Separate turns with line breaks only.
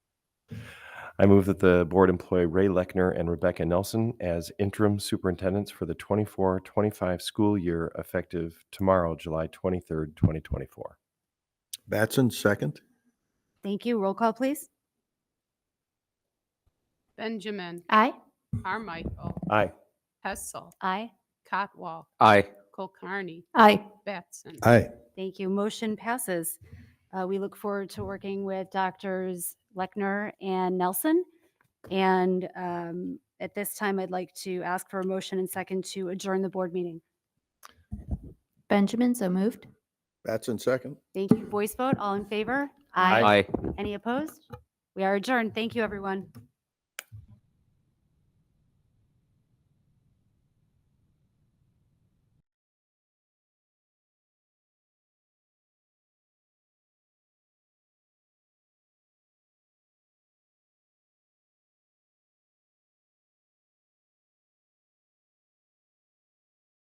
I move that the board employ Ray Lechner and Rebecca Nelson as interim superintendents for the 24-25 school year effective tomorrow, July twenty-third, twenty twenty-four.
Batson, second.
Thank you. Roll call, please.
Benjamin,
Aye.
Carmichael,
Aye.
Hessel,
Aye.
Cotwall,
Aye.
Colcarney,
Aye.
Batson.
Aye.
Thank you. Motion passes. Uh, We look forward to working with Doctors Lechner and Nelson. And um, at this time, I'd like to ask for a motion and second to adjourn the board meeting.
Benjamin, so moved.
Batson, second.
Thank you. Voice vote, all in favor?
Aye.
Aye.
Any opposed? We are adjourned. Thank you, everyone.